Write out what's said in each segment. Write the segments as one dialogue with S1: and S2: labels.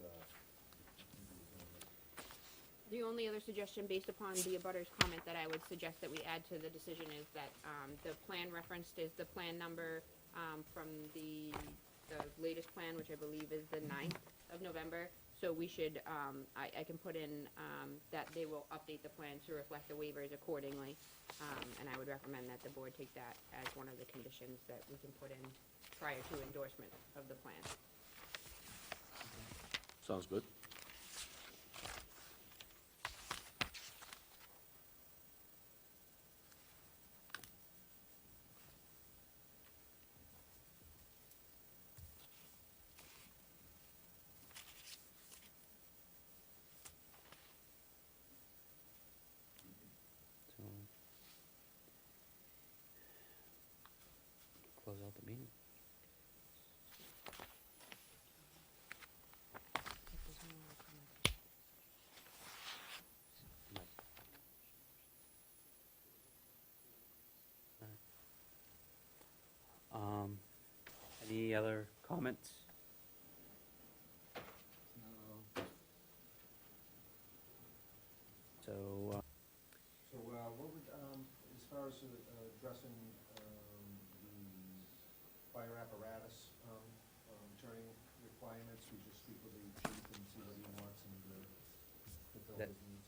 S1: uh,
S2: the only other suggestion based upon the abutter's comment that I would suggest that we add to the decision is that, um, the plan referenced is the plan number, um, from the, the latest plan, which I believe is the ninth of November. So we should, um, I, I can put in, um, that they will update the plan to reflect the waivers accordingly. Um, and I would recommend that the board take that as one of the conditions that we can put in prior to endorsement of the plan.
S3: Sounds good.
S4: So. Close out the meeting. Mike. Alright. Um, any other comments? So, uh,
S1: So, uh, what would, um, as far as uh, addressing, um, the fire apparatus, um, um, turning requirements, we just speak with the chief and see what he wants and, uh, fulfill
S4: That-
S1: his needs?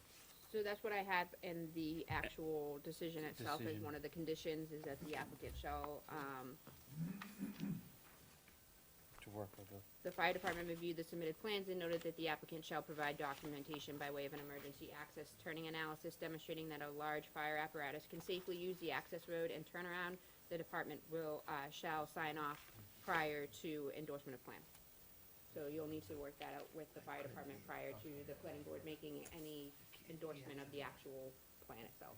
S2: So that's what I have in the actual decision itself, is
S4: Decision.
S2: one of the conditions, is that the applicant shall, um,
S4: to work with the
S2: the fire department reviewed the submitted plans and noted that the applicant shall provide documentation by way of an emergency access turning analysis demonstrating that a large fire apparatus can safely use the access road and turn around. The department will, uh, shall sign off prior to endorsement of plan. So you'll need to work that out with the fire department prior to the planning board making any endorsement of the actual plan itself.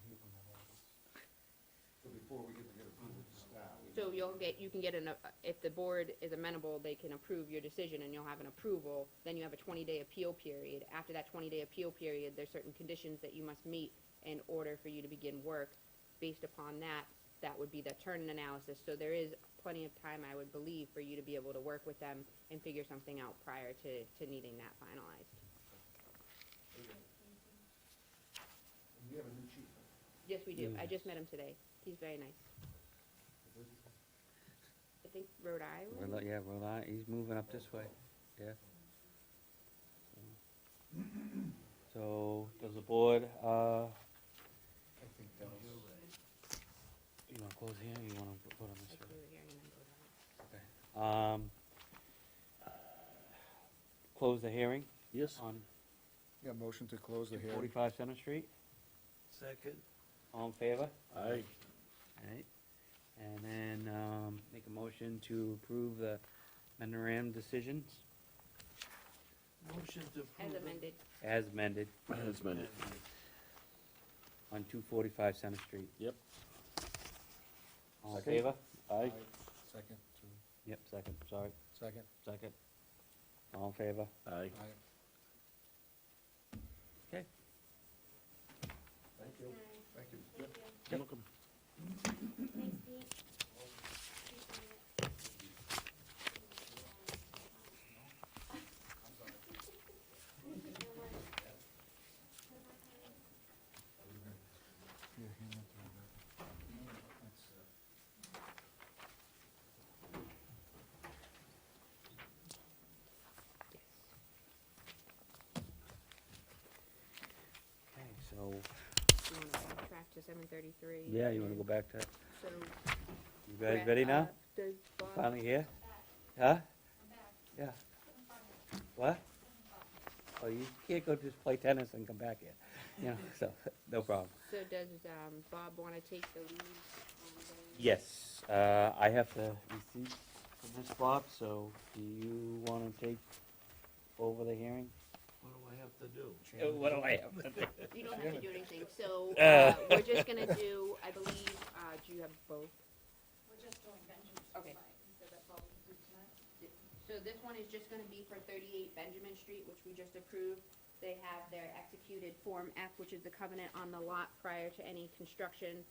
S1: So before we get to get approval to start. we-
S2: So you'll get, you can get an, uh, if the board is amenable, they can approve your decision and you'll have an approval. Then you have a twenty-day appeal period. After that twenty-day appeal period, there's certain conditions that you must meet in order for you to begin work. Based upon that, that would be the turn analysis. So there is plenty of time, I would believe, for you to be able to work with them and figure something out prior to, to needing that finalized.
S1: And we have a new chief. huh?
S2: Yes, we do. I
S4: Yes.
S2: just met him today. He's very nice. I think Rhode Island?
S4: Rhode, yeah, Rhode Island, he's moving up this way, yeah. So, does the board, uh,
S1: I think that was.
S4: you wanna close here, or you wanna vote on this?
S2: Like we were hearing him in Rhode Island.
S4: one? Um, close the hearing
S3: Yes,
S4: on
S1: Yeah, motion to close the
S4: forty-five Center Street,
S5: Second.
S4: all in favor?
S3: aye.
S4: Alright, and then, um, make a motion to approve the memorandum decisions
S5: Motion to approve.
S2: As
S5: it.
S2: amended.
S4: as amended
S3: That's been it.
S4: on two forty-five Center Street.
S3: Yep.
S4: All in
S3: Second.
S4: favor?
S3: Aye.
S1: Second, two,
S4: Yep, second, sorry,
S1: second,
S4: second. All in favor?
S3: Aye.
S1: aye.
S4: Okay.
S1: Thank you. Thank you.
S3: You're welcome.
S1: Yeah, he went through that. That's, uh,
S4: Okay, so,
S2: You wanna backtrack to seven thirty-three?
S4: yeah, you wanna go back to,
S2: So.
S4: you guys ready
S2: Uh,
S4: now?
S2: Does Bob,
S4: Finally here? Huh? Yeah. What? Oh, you can't go just play tennis and come back here, you know, so, no problem.
S2: so does, um, Bob wanna take the lead? on the-
S4: Yes, uh, I have the receipt for this, Bob, so do you wanna take over the hearing?
S5: What do I have to do?
S4: Oh, What do I have?
S2: You don't have to do anything, so, uh,
S4: Uh.
S2: we're just gonna do, I believe, uh, do you have both?
S6: We're just doing Benjamin's
S2: Okay.
S6: tonight, so that's all we can do tonight.
S2: So this one is just gonna be for thirty-eight Benjamin Street, which we just approved. They have their executed Form F, which is the covenant on the lot prior to any construction.